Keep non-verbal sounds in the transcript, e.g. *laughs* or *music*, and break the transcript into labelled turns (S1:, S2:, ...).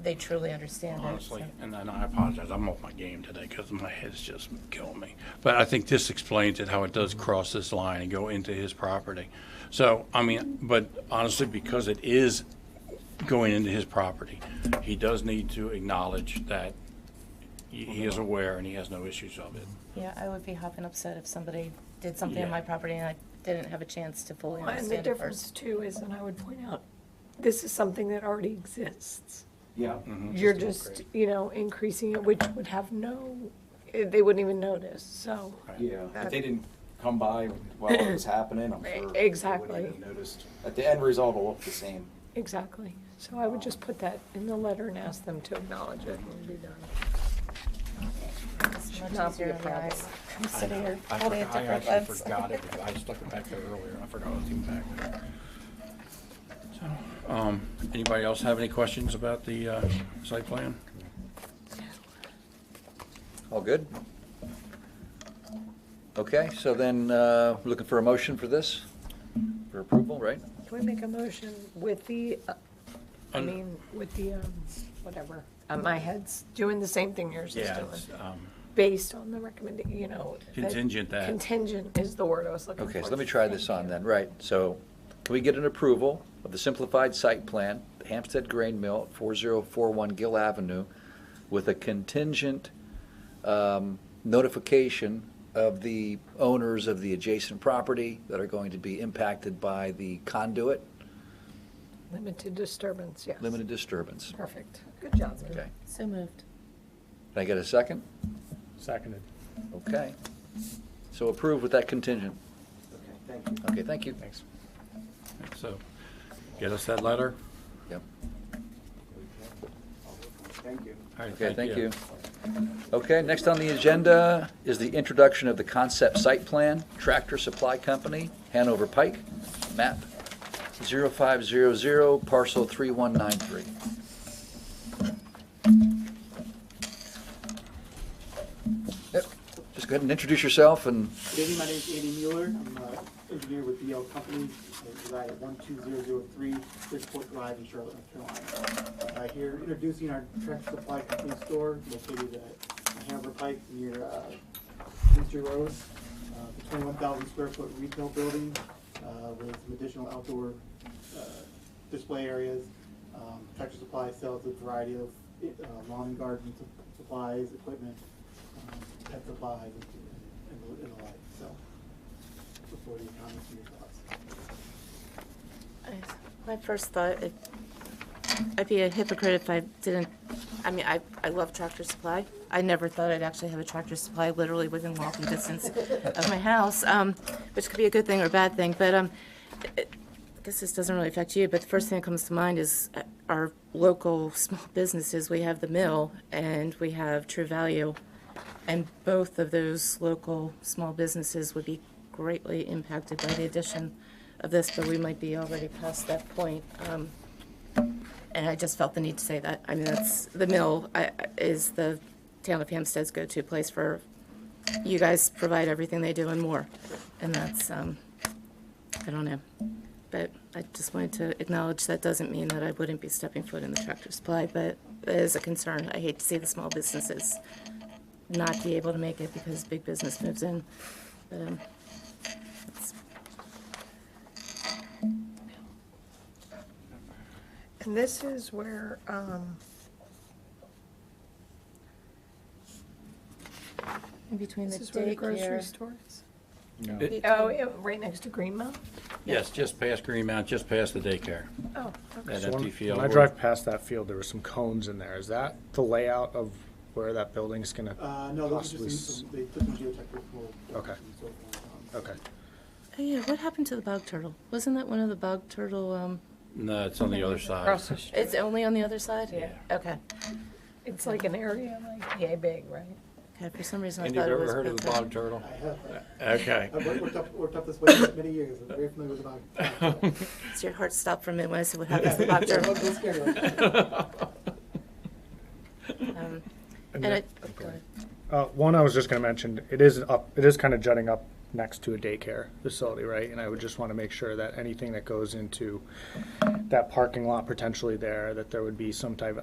S1: they truly understand it.
S2: honestly.
S1: so.
S2: And then I apologize, I'm off my game today because my head's just killing me. But I think this explains it, how it does cross this line and go into his property. So, I mean, but honestly, because it is going into his property, he does need to acknowledge that he- he is aware and he has no issues of it.
S1: Yeah, I would be hopping upset if somebody did something
S2: Yeah.
S1: on my property and I didn't have a chance to fully
S3: And the
S1: understand it
S3: difference
S1: first.
S3: too is, and I would point out, this is something that already exists.
S4: Yeah.
S3: You're just, you know, increasing it, which would have no, eh, they wouldn't even notice, so.
S4: Yeah, if they didn't come by while it was happening, I'm sure. they wouldn't
S3: Exactly.
S4: have Noticed. At the end result will look the same.
S3: Exactly. So I would just put that in the letter and ask them to acknowledge it and be done.
S1: It's much
S3: not be
S1: easier
S3: a
S1: on the
S3: problem.
S1: eyes. I'm
S2: I
S1: sitting
S2: know.
S1: here
S2: I
S1: holding it
S2: forgot-
S1: different
S2: I
S1: lengths.
S2: actually forgot it. I stuck it back there earlier. I forgot it was even back there. So, um, anybody else have any questions about the, uh, site plan?
S5: All good? Okay, so then, uh, looking for a motion for this, for approval, right?
S3: Can we make a motion with the, uh, I mean, with the, um, whatever, Uh, my head's doing the same thing yours is
S2: Yeah,
S3: doing.
S2: it's, um,
S3: Based on the recommend, you know. that-
S2: Contingent that.
S3: Contingent is the word I was looking for.
S5: Okay, so let me try this on then, right, so can we get an approval of the simplified site plan, Hampstead Grain Mill, four zero four one Gill Avenue, with a contingent, um, notification of the owners of the adjacent property that are going to be impacted by the conduit,
S3: Limited disturbance, yes.
S5: limited disturbance,
S3: Perfect. Good job. Sue.
S5: okay?
S1: *laughs* So moved.
S5: Can I get a second?
S6: Seconded.
S5: Okay. So approved with that contingent.
S4: Okay, thank you.
S5: Okay, thank you.
S6: Thanks.
S2: So, get us that letter.
S5: Yep.
S4: Thank you.
S2: All right,
S5: Okay, thank you. Okay, next on the agenda is the introduction of the concept site plan, Tractor Supply Company, Hanover Pike, map 0500, parcel 3193. Yep, just go ahead and introduce yourself and,
S7: Good evening, my name is Andy Mueller. I'm an engineer with BL Company. I reside at 12003 Bridgeport Drive in Charlotte, North Carolina. Uh, Here introducing our Tractor Supply Company store located at Hanover Pike near Mr. Road. Uh, It's a 21,000 square foot retail building uh, with some additional outdoor uh, display areas. Um, Tractor Supply sells a variety of uh, lawn and garden sup- supplies, equipment, um, pet supplies, and- and the- and the like, so. look forward to your comments and your thoughts.
S1: I- My first thought, it- I'd be a hypocrite if I didn't, I mean, I, I love Tractor Supply. I never thought I'd actually have a Tractor Supply literally within walking distance of my house, um, which could be a good thing or a bad thing, but, um, it- I guess this doesn't really affect you, but the first thing that comes to mind is uh, our local small businesses. We have the Mill and we have True Value. And both of those local small businesses would be greatly impacted by the addition of this, but we might be already past that point. Um, And I just felt the need to say that. I mean, that's, the mill I- I- is the town of Hampstead's go-to place for, you guys provide everything they do and more. And that's, um, I don't know. But I just wanted to acknowledge that doesn't mean that I wouldn't be stepping foot in the Tractor Supply, but it is a concern. I hate to see the small businesses not be able to make it because big business moves in. But, um, it's-
S3: And this is where, um,
S1: in between the
S3: this is where the grocery
S1: daycare.
S3: store is.
S2: It-
S3: Oh, yeah, right next to Greenmount?
S2: Yes, just past Greenmount, just past the daycare,
S3: Oh,
S5: Uh,
S3: okay.
S2: that
S6: So when-
S2: empty field.
S6: When I drive past that field, there were some cones in there. Is that the layout of where that building's gonna
S7: Uh, no, those are
S6: possibly?
S7: just,
S6: s-
S7: some- they took some geotechnical.
S6: Okay. Okay,
S1: Oh, yeah, what happened to the bog turtle? Wasn't that one of the bog turtle, um?
S2: No, it's on the other side.
S3: Across the street.
S1: It's only on the other side?
S2: Yeah.
S1: Okay.
S3: It's like an area like yay big, right?
S1: Okay, for some reason I
S2: And
S1: thought
S2: you've
S1: it was.
S2: ever heard of the
S1: Bethel.
S2: bog turtle?
S7: I have, uh,
S2: Okay.
S7: I've worked- worked up, worked up this way for many years. I'm very familiar with
S6: *laughs*
S7: the.
S1: So Your heart stopped for a minute when I said, what happened to the bog
S2: *laughs*
S1: turtle? Um, And I,
S6: uh, one I was just gonna mention, it is up, it is kinda jutting up next to a daycare facility, right? And I would just wanna make sure that anything that goes into that parking lot potentially there, that there would be some type of